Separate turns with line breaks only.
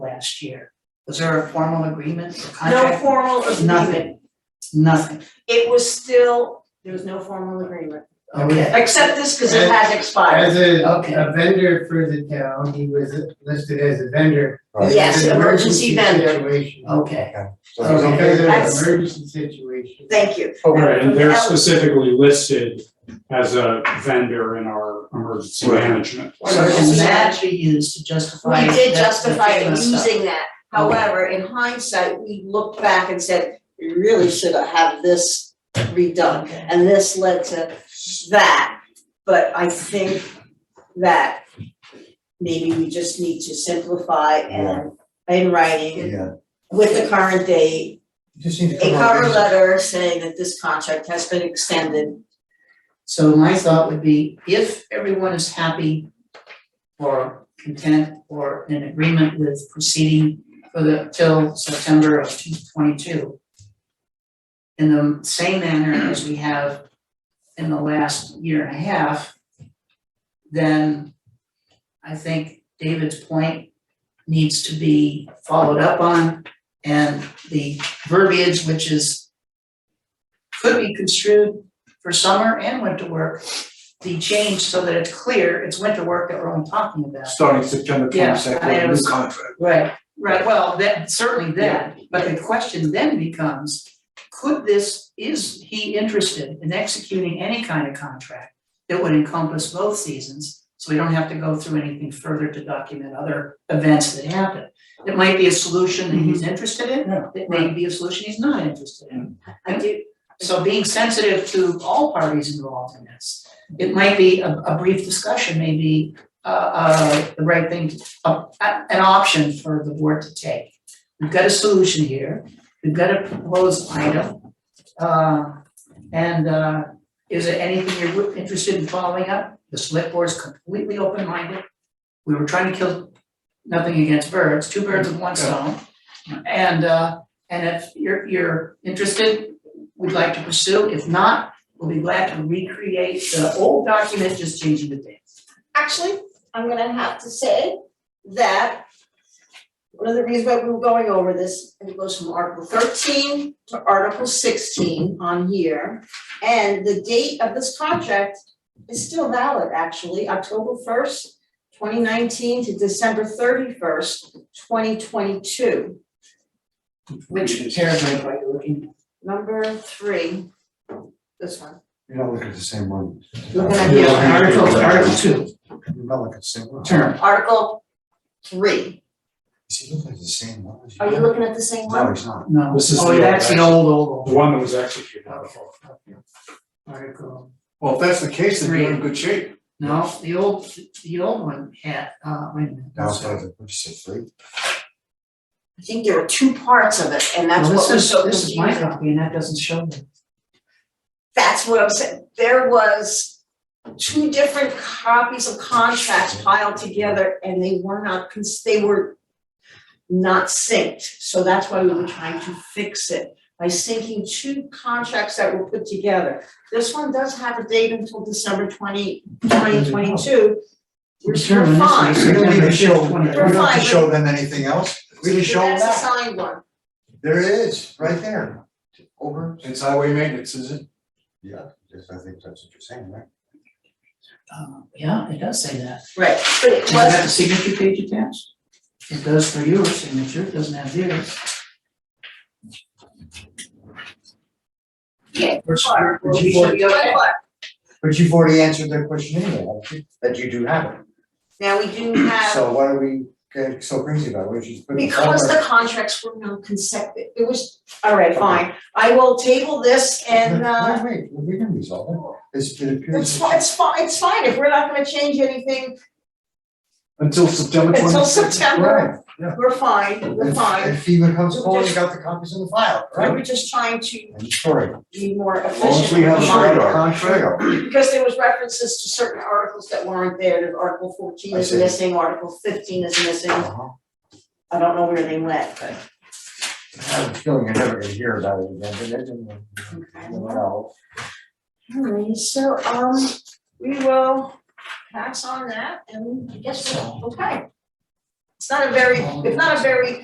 last year. Was there a formal agreement or
No
contract?
formal agreement,
Nothing. Nothing,
it was still, there was no formal agreement,
okay,
except this, cause it has expired.
As a,
Oh, Okay.
a vendor for the town, he was listed as a vendor.
Right.
Yes,
It's an
emergency vendor.
Situation.
okay,
So there's no-
Because of
That's-
an emergency situation.
Thank you,
Right, and they're
That-
specifically listed as a vendor in our emergency
Right.
management.
so can that be used to justify?
we did
that-
justify
that kind of stuff?
using that, however, in hindsight, we looked back and said, we really should have had this redone.
Okay.
And this led to that, but I think that maybe we just need to simplify and in writing
Yeah,
with the current date
Just need to
a
come up
cover
with-
letter saying that this contract has been extended.
So my thought would be, if everyone is happy or content or in agreement with proceeding for the, till September of two twenty-two, in the same manner as we have in the last year and a half, then I think David's point needs to be followed up on and the verbiage, which is could be construed for summer and winter work, the change so that it's clear it's winter work that we're only talking about.
starting September
Yeah,
twenty second,
I
a new
was-
contract.
Right, right, well, that, certainly that, but the question then becomes, could this, is he interested in executing any kind of contract that would encompass both seasons, so we don't have to go through anything further to document other events that happen? It might be a solution that he's interested in,
Mm-hmm. Yeah, Mm-hmm.
it may be a solution he's not interested in.
I do,
So being sensitive to all parties involved in this, it might be a a brief discussion, maybe uh uh the right thing, uh an option for the board to take. We've got a solution here, we've got a proposed item. Uh and uh is there anything you're interested in following up? The select board's completely open-minded. We were trying to kill nothing against birds, two birds with one stone. And uh and if you're you're interested, we'd like to pursue. If not, we'll be glad to recreate the old document, just changing the dates.
actually, I'm gonna have to say that one of the reasons why we were going over this, and it goes from Article thirteen to Article sixteen on here. And the date of this contract is still valid, actually, October first, twenty nineteen to December thirty first, twenty twenty two.
Which paragraph are you looking at?
Number three, this one.
you're not looking at the same one.
You're gonna
You're
be-
looking at-
Article, Article two,
You're not looking at the same one.
term.
Article three.
Is he looking at the same one? as
Are you looking at the same
No,
one?
he's not.
No,
This is the
oh,
old
that's the
action.
old, old,
The
old.
one that was executed.
Article,
Well, if that's the case, then you're in good shape.
no, the old, the old one had, uh, wait a minute.
Now it's like, what you say, three?
I think there are two parts of it, and that's
Well,
what was so
This is, this is my
confusing.
copy and that doesn't show that.
That's what I'm saying, there was two different copies of contracts piled together, and they were not, cons- they were not synced, so that's why we were trying to fix it, by syncing two contracts that were put together. This one does have a date until December twenty, twenty twenty-two, we're
Term
we're
initially,
fine.
We don't need
September
to show, we
23rd.
don't need
Fine.
to show them anything else. We just show them
That's a
that.
signed one.
There it is, right there. Over.
It's highway maintenance, is it?
Yeah, yes, I think that's what you're saying, right?
Uh, Yeah, it does say that.
Right, but it
Does it have a
was,
signature page attached? It does for your signature, it doesn't have theirs.
yeah,
Which,
Well,
which
we should be okay.
But you've already answered their question anyway, haven't you? that you do have it.
Now, we do have,
So what are we getting so crazy about, which is.
because the contracts were not consecutive, it was, all right, fine. I will table this and, uh,
Wait, wait, we can resolve it. It's, it appears.
it's fine, it's fine, it's fine, if we're not gonna change anything
Until September twenty.
until September,
Right, yeah.
we're fine, we're
If-
fine.
If FEMA comes forward, you got the copies in the file, right?
We're just trying to
And sorry.
be more
As long as
efficient
we have
with
a
the
straight
monitoring,
contract.
because there was references to certain articles that weren't there, that Article fourteen
I
is
see.
missing, Article fifteen is missing,
Uh-huh.
I don't know where they went, but.
I have a feeling you're never gonna hear about it again, but it didn't. You know,
Alright, so um, we will pass on that and I guess we're okay. not a very, it's not a very